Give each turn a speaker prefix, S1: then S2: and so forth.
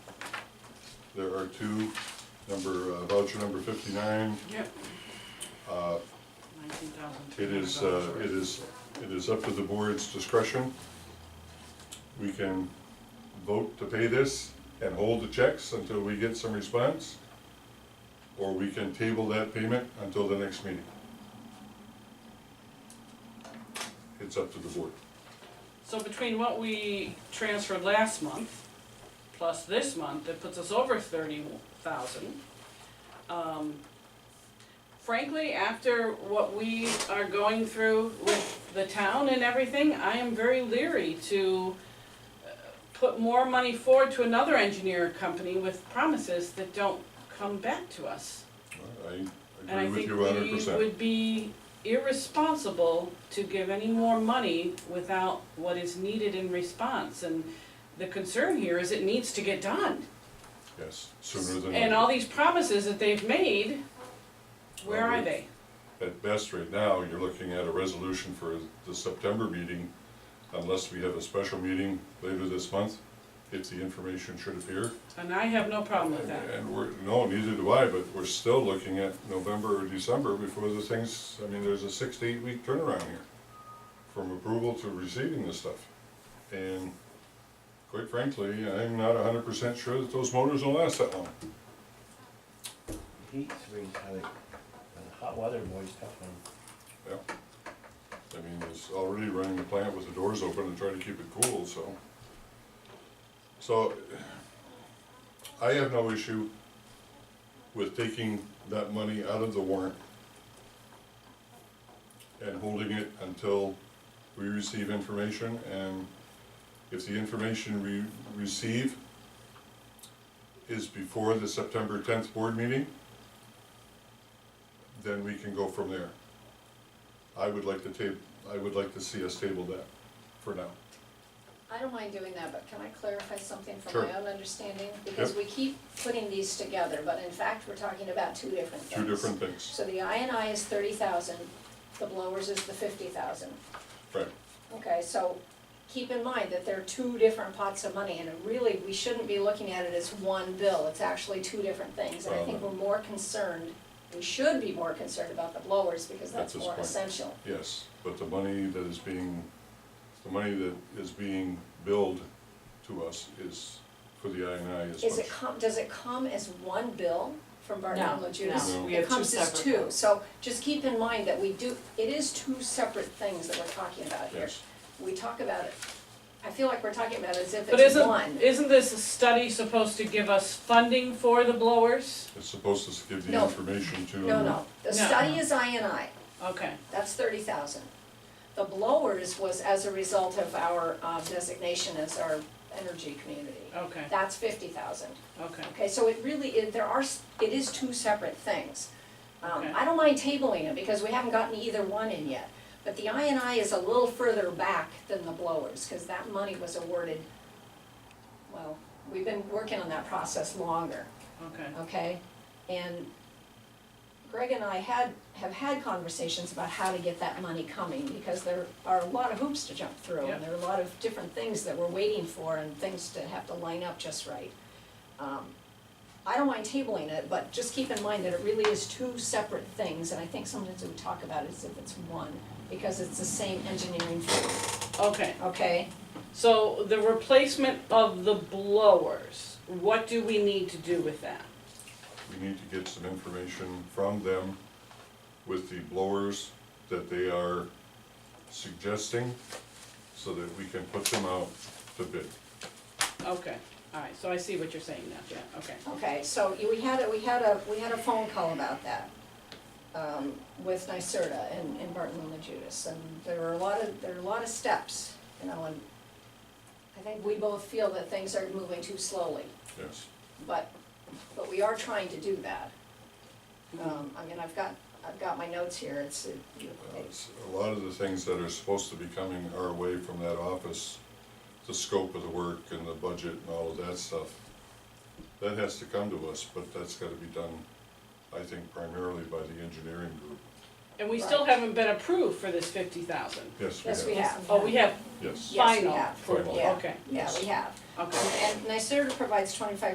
S1: There are two, number, uh, voucher number fifty-nine,
S2: Yep,
S1: uh,
S2: nineteen thousand two
S1: It
S2: hundred
S1: is, uh, it is, it is up to the board's discretion. We can vote to pay this and hold the checks until we get some response. Or we can table that payment until the next meeting. It's up to the board.
S2: So between what we transferred last month, plus this month, it puts us over thirty thousand. Um, Frankly, after what we are going through with the town and everything, I am very leery to uh, put more money forward to another engineer company with promises that don't come back to us.
S1: I
S2: And I
S1: agree with
S2: think
S1: you hundred
S2: we
S1: percent.
S2: would be irresponsible to give any more money without what is needed in response. And the concern here is it needs to get done.
S1: Yes, sooner than
S2: And all
S1: later.
S2: these promises that they've made, where are they?
S1: At best, right now, you're looking at a resolution for the September meeting, unless we have a special meeting later this month, if the information should appear.
S2: And I have no problem with that.
S1: And we're, no, neither do I, but we're still looking at November or December before the things, I mean, there's a six to eight week turnaround here. From approval to receiving this stuff. And quite frankly, I'm not hundred percent sure that those motors will last that long.
S3: Heat's really kind of, the hot weather boys tough one.
S1: Yeah. I mean, it's already running the plant with the doors open and trying to keep it cool, so. So, I have no issue with taking that money out of the warrant and holding it until we receive information, and if the information we receive is before the September tenth board meeting, then we can go from there. I would like to table, I would like to see us table that for now.
S4: I don't mind doing that, but can I clarify something
S1: Sure.
S4: from my own understanding? Because we keep putting these together, but in fact, we're talking about two different things.
S1: Two different things.
S4: So the INI is thirty thousand, the blowers is the fifty thousand.
S1: Right,
S4: Okay, so keep in mind that they're two different pots of money, and really, we shouldn't be looking at it as one bill, it's actually two different things. And I think
S1: Well,
S4: we're more concerned, we should be more concerned about the blowers, because
S1: That's
S4: that's
S1: his
S4: more
S1: point.
S4: essential.
S1: yes, but the money that is being, the money that is being billed to us is, for the INI is
S4: Is
S1: much.
S4: it com, does it come as one bill from Bartholomew Judas?
S1: no.
S2: We have two
S4: It comes as
S2: separate
S4: two,
S2: bills.
S4: so just keep in mind that we do, it is two separate things that we're talking about here.
S1: Yes,
S4: We talk about it, I feel like we're talking about it as if
S2: But
S4: it's one.
S2: isn't, isn't this study supposed to give us funding for the blowers?
S1: it's supposed to give the
S4: No.
S1: information to.
S4: No, no, the
S2: No.
S4: study is I and I,
S2: Okay,
S4: that's thirty thousand. The blowers was as a result of our uh, designation as our energy community.
S2: okay,
S4: That's fifty thousand.
S2: okay.
S4: Okay, so it really, it, there are, s- it is two separate things. Um,
S2: Okay.
S4: I don't mind tabling it because we haven't gotten either one in yet. But the I and I is a little further back than the blowers, cause that money was awarded, well, we've been working on that process longer,
S2: Okay,
S4: okay? And Greg and I had, have had conversations about how to get that money coming, because there are a lot of hoops to jump through.
S2: Yeah.
S4: And there are a lot of different things that we're waiting for and things to have to line up just right. Um, I don't mind tabling it, but just keep in mind that it really is two separate things, and I think sometimes we talk about it as if it's one, because it's the same engineering firm,
S2: okay.
S4: okay?
S2: So the replacement of the blowers, what do we need to do with that?
S1: We need to get some information from them with the blowers that they are suggesting, so that we can put them out to bid.
S2: Okay, all right, so I see what you're saying now, yeah, okay.
S4: Okay, so you- we had, a we had a, we had a phone call about that, um, with NYSERDA and, and Barton and Judas, and there were a lot of, there are a lot of steps, you know, and I think we both feel that things are moving too slowly,
S1: Yes,
S4: but, but we are trying to do that. Um, I mean, I've got, I've got my notes here, it's, it-
S1: Uh, s- A lot of the things that are supposed to be coming our way from that office, the scope of the work and the budget and all of that stuff, that has to come to us, but that's gotta be done, I think primarily by the engineering group.
S2: And we still
S4: Right.
S2: haven't been approved for this fifty thousand.
S1: Yes,
S4: yes,
S1: we
S4: we
S1: have,
S4: have.
S2: Oh, we have
S1: yes.
S4: Yes, we
S2: final
S4: have.
S2: approval,
S4: Yeah.
S2: okay,
S4: Yeah, we have.
S2: okay.
S4: And NYSERDA provides twenty-five